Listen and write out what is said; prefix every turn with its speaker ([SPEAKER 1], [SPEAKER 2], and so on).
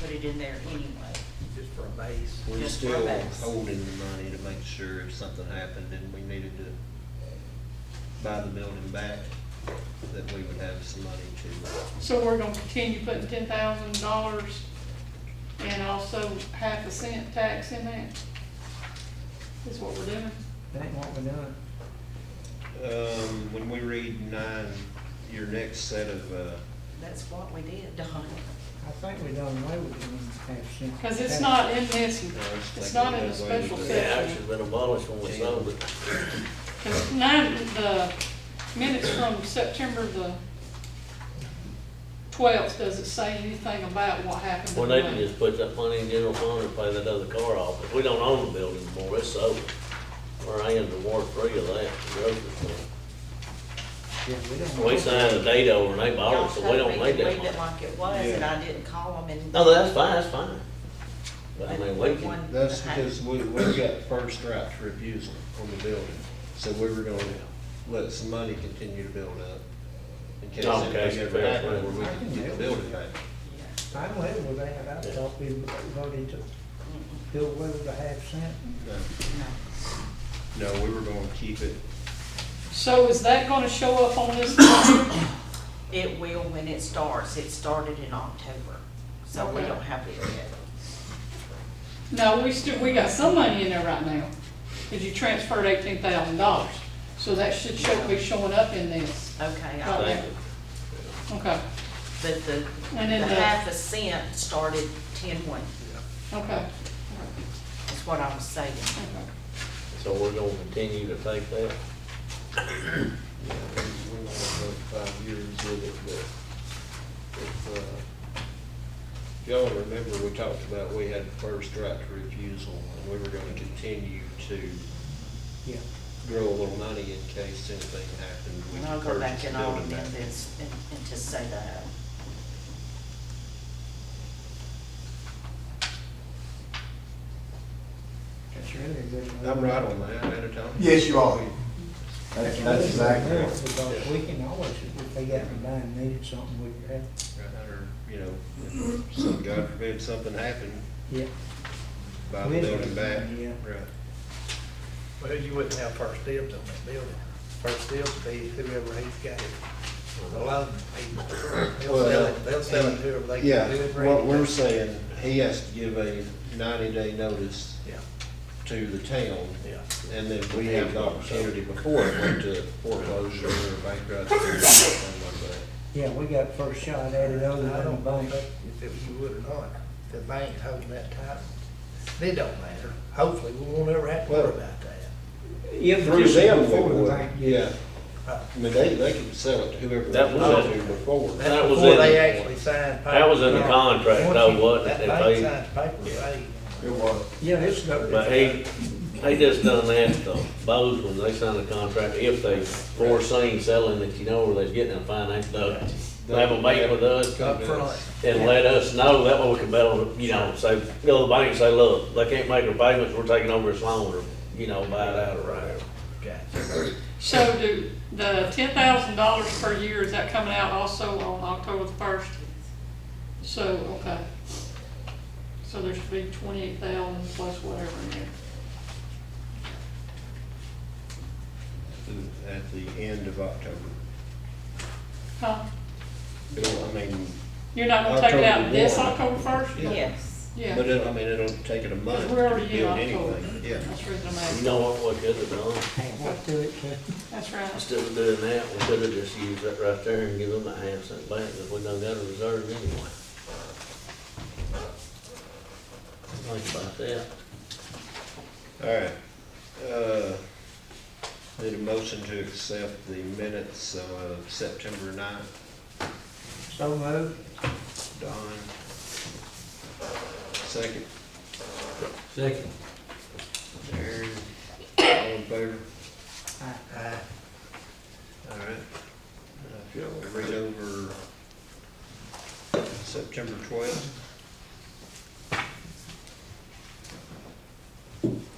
[SPEAKER 1] put it in there anyway.
[SPEAKER 2] just for a base.
[SPEAKER 3] We're
[SPEAKER 1] Just
[SPEAKER 3] still
[SPEAKER 1] throwbacks.
[SPEAKER 3] holding the money to make sure if something happened and we needed to buy the building back, that we would have some money to,
[SPEAKER 4] So we're gonna continue putting ten thousand dollars and also half a cent tax in that? Is what we're doing?
[SPEAKER 2] That ain't what we're doing.
[SPEAKER 3] um, when we read nine, your next set of, uh,
[SPEAKER 1] That's what we did, Don.
[SPEAKER 2] I think we done away with the one half cent.
[SPEAKER 4] Cause it's not in this,
[SPEAKER 3] I was
[SPEAKER 4] it's
[SPEAKER 3] thinking
[SPEAKER 4] not in the
[SPEAKER 3] that way,
[SPEAKER 4] special
[SPEAKER 3] but-
[SPEAKER 5] Yeah, actually
[SPEAKER 4] section.
[SPEAKER 5] been abolished when we sold it.
[SPEAKER 4] Cause nine, the minutes from September the twelfth, does it say anything about what happened? to
[SPEAKER 5] Well,
[SPEAKER 4] the
[SPEAKER 5] they
[SPEAKER 4] money?
[SPEAKER 5] can just put that money in general fund and pay that other car off. If we don't own the building anymore, it's sold. We're in the war free of that, the grocery store.
[SPEAKER 2] Yeah, we done.
[SPEAKER 5] We signed the date over and they bought it, so we don't
[SPEAKER 1] make
[SPEAKER 5] need
[SPEAKER 1] Leave
[SPEAKER 5] that
[SPEAKER 1] it
[SPEAKER 5] money.
[SPEAKER 1] like it was, and I didn't call them and.
[SPEAKER 5] No, that's fine, that's fine. But I mean, we can,
[SPEAKER 1] One-
[SPEAKER 3] That's because we, we got first right to refusal on the building, so we were gonna let some money continue to build up. In case
[SPEAKER 5] Oh, okay,
[SPEAKER 3] anything ever
[SPEAKER 5] fair,
[SPEAKER 3] happened, where we
[SPEAKER 2] fair.
[SPEAKER 3] could get the building back.
[SPEAKER 1] Yeah.
[SPEAKER 2] I'm level with that, I thought we voted to
[SPEAKER 1] Mm-mm,
[SPEAKER 2] do away with the half cent.
[SPEAKER 1] no.
[SPEAKER 3] No, No, we were gonna keep it
[SPEAKER 4] So is that gonna show up on this? document?
[SPEAKER 1] It will when it starts. It started in October, so we
[SPEAKER 4] Okay.
[SPEAKER 1] don't have it yet.
[SPEAKER 4] No, we still, we got some money in there right now, cause you transferred eighteen thousand dollars. So that should show, be showing up in this,
[SPEAKER 1] Okay,
[SPEAKER 4] Right.
[SPEAKER 1] I-
[SPEAKER 5] thank you.
[SPEAKER 4] okay,
[SPEAKER 1] but the,
[SPEAKER 4] And then
[SPEAKER 1] the
[SPEAKER 4] the-
[SPEAKER 1] half a cent started ten one,
[SPEAKER 4] okay,
[SPEAKER 1] is what I was saying.
[SPEAKER 4] okay.
[SPEAKER 5] So we're gonna continue to take that.
[SPEAKER 3] Yeah, we- we're not gonna go five years with it, but if, uh, if y'all remember, we talked about we had first right to refusal, and we were gonna continue to
[SPEAKER 2] Yeah,
[SPEAKER 3] grow a little money in case anything happened. we
[SPEAKER 1] And I'll go
[SPEAKER 3] could purchase
[SPEAKER 1] back
[SPEAKER 3] the
[SPEAKER 1] and I'll
[SPEAKER 3] building
[SPEAKER 1] amend
[SPEAKER 3] back.
[SPEAKER 1] this and, and to say that.
[SPEAKER 2] that's really a good.
[SPEAKER 3] I'm right on that, ain't I, Tom?
[SPEAKER 6] Yes, you are. That's,
[SPEAKER 2] That's
[SPEAKER 6] that's exactly.
[SPEAKER 2] really
[SPEAKER 6] right.
[SPEAKER 2] good, Because we can always, if they got to buy and needed something, we could have,
[SPEAKER 3] Right, Or, you know, if some, God forbid, something happened,
[SPEAKER 2] yeah.
[SPEAKER 3] buy the
[SPEAKER 2] We'd-
[SPEAKER 3] building back.
[SPEAKER 2] yeah.
[SPEAKER 3] Right.
[SPEAKER 7] Well, you wouldn't have first dibs on that building. First dibs would be whoever he's got it, the loan people. They'll sell it, they'll sell it to whoever they
[SPEAKER 3] Yeah,
[SPEAKER 7] can do it. bring
[SPEAKER 3] what
[SPEAKER 7] it
[SPEAKER 3] we're
[SPEAKER 7] down.
[SPEAKER 3] saying, he has to give a ninety-day notice
[SPEAKER 7] Yeah,
[SPEAKER 3] to the town,
[SPEAKER 7] yeah.
[SPEAKER 3] and then we have the opportunity before it went to foreclosure or bankruptcy or something like that.
[SPEAKER 2] Yeah, we got first shot at it other
[SPEAKER 7] I
[SPEAKER 2] than the
[SPEAKER 7] don't know
[SPEAKER 2] bank.
[SPEAKER 7] if it- you would or not, the bank holding that title. It don't matter. Hopefully, we won't ever have to worry about that.
[SPEAKER 2] If
[SPEAKER 3] Through them, we
[SPEAKER 2] before the
[SPEAKER 3] would,
[SPEAKER 2] bank,
[SPEAKER 3] yeah,
[SPEAKER 7] Uh,
[SPEAKER 3] I mean, they, they can sell it to whoever they
[SPEAKER 5] That was
[SPEAKER 3] want
[SPEAKER 5] it.
[SPEAKER 3] to before.
[SPEAKER 7] That's
[SPEAKER 5] That was
[SPEAKER 7] before
[SPEAKER 5] in-
[SPEAKER 7] they actually signed.
[SPEAKER 5] That was in the
[SPEAKER 7] papers.
[SPEAKER 5] contract, though,
[SPEAKER 7] Once you-
[SPEAKER 5] wasn't it?
[SPEAKER 7] That
[SPEAKER 5] If
[SPEAKER 7] bank
[SPEAKER 5] they-
[SPEAKER 7] signs papers, they.
[SPEAKER 6] It was.
[SPEAKER 2] Yeah, it's no.
[SPEAKER 5] But he, he just done that though, Bose, when they signed the contract, if they foreseen selling that you know where they're getting a finance done, have a meeting with us
[SPEAKER 7] Up front.
[SPEAKER 5] and let us know, that way we can better, you know, say, go to the bank and say, look, they can't make their payments, we're taking over this loan, or, you know, buy it out or whatever.
[SPEAKER 7] Gotcha.
[SPEAKER 4] So do, the ten thousand dollars per year, is that coming out also on October the first? So, okay. So there should be twenty-eight thousand plus whatever in there.
[SPEAKER 3] At the end of October.
[SPEAKER 4] Huh?
[SPEAKER 3] It'll, I mean,
[SPEAKER 4] You're not gonna take it out this
[SPEAKER 3] October
[SPEAKER 4] October
[SPEAKER 3] one.
[SPEAKER 4] first?
[SPEAKER 3] Yeah.
[SPEAKER 1] Yes.
[SPEAKER 3] but
[SPEAKER 4] Yeah,
[SPEAKER 3] it, I mean, it'll take it a month
[SPEAKER 4] because
[SPEAKER 3] to
[SPEAKER 4] we're already in
[SPEAKER 3] build
[SPEAKER 4] October.
[SPEAKER 3] anything, yeah.
[SPEAKER 4] That's the reason I'm
[SPEAKER 5] You
[SPEAKER 4] asking.
[SPEAKER 5] know what, we could have done,
[SPEAKER 2] What to it, to-
[SPEAKER 4] That's right.
[SPEAKER 5] instead of doing that, we could have just used that right there and give them a half cent back, if we done got a reserve anyway. Think about that.
[SPEAKER 3] All right, uh, need a motion to accept the minutes of September ninth,
[SPEAKER 2] so moved.
[SPEAKER 3] Don. Second,
[SPEAKER 5] Second.
[SPEAKER 3] Aaron, all in favor?
[SPEAKER 7] Uh,
[SPEAKER 3] All right. Uh, If y'all would read over September twelfth.